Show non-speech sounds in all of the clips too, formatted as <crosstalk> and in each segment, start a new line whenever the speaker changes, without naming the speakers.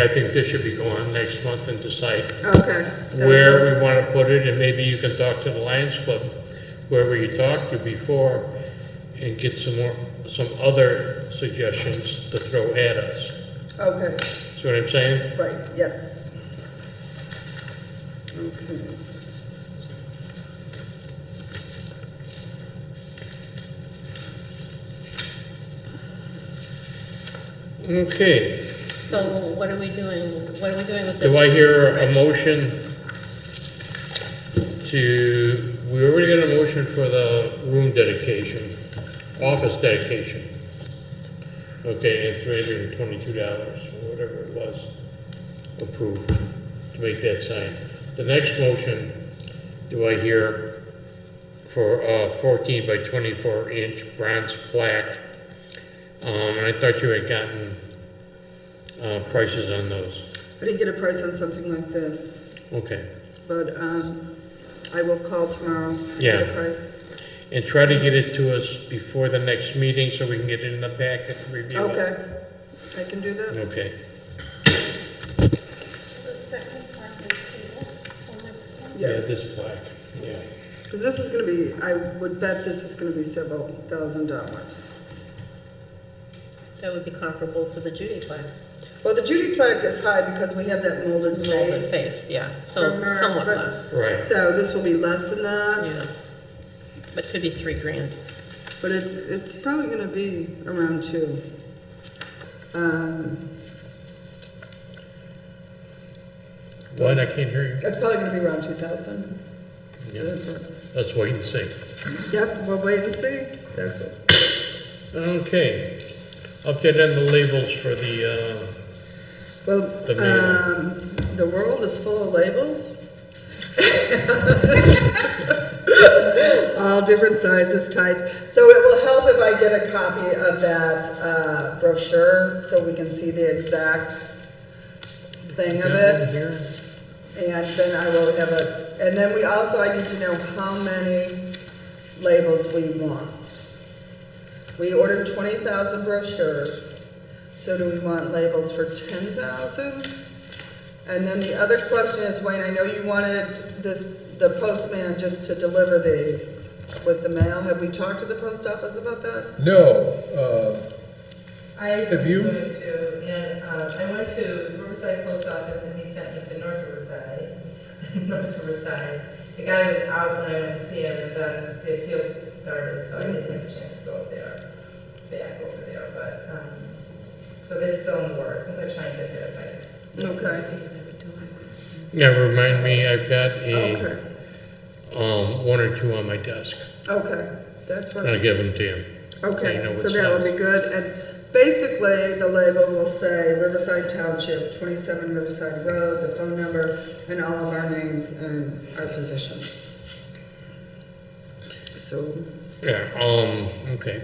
I think this should be going next month and decide
Okay.
where we want to put it, and maybe you can talk to the Lions Club, whoever you talked to before, and get some more, some other suggestions to throw at us.
Okay,
See what I'm saying?
right, yes. Okay. s-
Okay,
So what are we doing, what are we doing with this?
do I hear a
Rich?
motion to, we already got a motion for the room dedication, office dedication. Okay, and three hundred and twenty-two dollars, or whatever it was, approved to make that sign. The next motion, do I hear for a fourteen by twenty-four inch bronze plaque? Um, and I thought you had gotten, uh, prices on those.
I didn't get a price on something like this,
Okay.
but, um, I will call tomorrow. and Get
Yeah.
a price.
And try to get it to us before the next meeting so we can get it in the packet and review it.
Okay, I can do that.
Okay.
So the second part is table till next month?
Yeah,
Yeah,
this plaque, yeah.
because this is gonna be, I would bet this is gonna be several thousand dollars.
That would be comparable to the Judy plaque.
Well, the Judy plaque is high because we have that molded
Molded
face.
face, yeah, so
From her,
somewhat
but-
less,
Right,
So this will be less than that,
yeah. But could be three grand.
but it, it's probably gonna be around two. Um,
what, I can't hear
it's probably gonna be around two thousand.
you. Yeah. Let's wait and see.
Yep, we'll wait and see. That's it.
Okay, update on the labels for the, uh,
Well,
The
um, the world is full of labels. All different sizes, types. So it will help if I get a copy of that uh, brochure so we can see the exact thing
uh.
of it. And then I will have a, and then we also, I need to know how many labels we want. We ordered twenty thousand brochures, so do we want labels for ten thousand? And then the other question is, Wayne, I know you wanted this, the postman just to deliver these with the mail. Have we talked to the post office about that?
No, uh,
I
Have you-
went to, and, uh, I went to Riverside Post Office and he sent me to North Riverside, <laughs> North Riverside. The guy was out when I went to see him and then the appeal started, so I didn't have a chance to go up there, back over there, but, um, so that's still in the works, I'm gonna try and get there by
Okay,
Yeah, remind me, I've got a,
okay,
um, one or two on my desk.
okay. That's what.
I'll give them to you. You know
Okay, so
what
that would be good, and basically, the label will say Riverside Township, twenty-seven Riverside Road, the phone number, and all of our names and our positions. So,
Yeah, um, okay.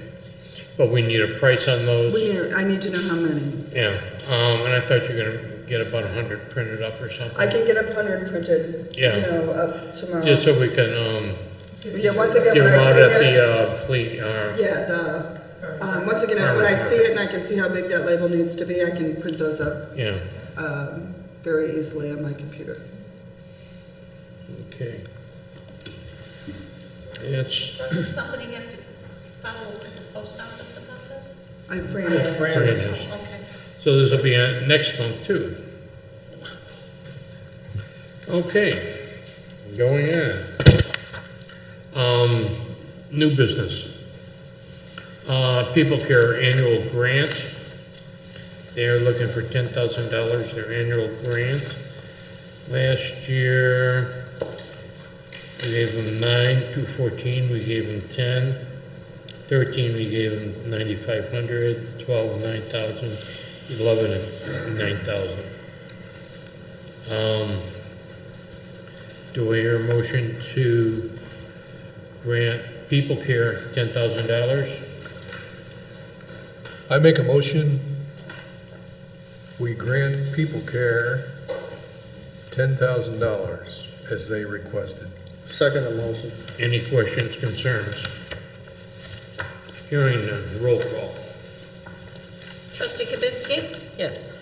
But we need a price on those.
we, need- I need to know how many.
Yeah, um, and I thought you were gonna get about a hundred printed up or something.
I can get a hundred printed, you
Yeah.
know, up tomorrow.
Just so we can, um,
Yeah, once again,
give
when
them
I
out at
see it,
the, uh, fleet, uh,
yeah, the, um, once again, when I see it and I can see how big that label needs to be, I can print those up,
yeah,
um, very easily on my computer.
okay. It's,
Doesn't somebody have to follow up with the post office about this?
I framed
yeah,
it.
Fran
Fran
is-
is.
Okay.
so this will be uh, next month too. Okay, going in. Um, new business. Uh, People Care Annual Grant. They're looking for ten thousand dollars, their annual grant. Last year, we gave them nine, two fourteen, we gave them ten. Thirteen, we gave them ninety-five hundred, twelve, nine thousand, eleven, nine thousand. Um, do I hear a motion to grant People Care ten thousand dollars?
I make a motion, we grant People Care $10,000 as they requested.
Second motion.
Any questions, concerns? Hearing none, roll call.
Trustee Kibitsky?
Yes,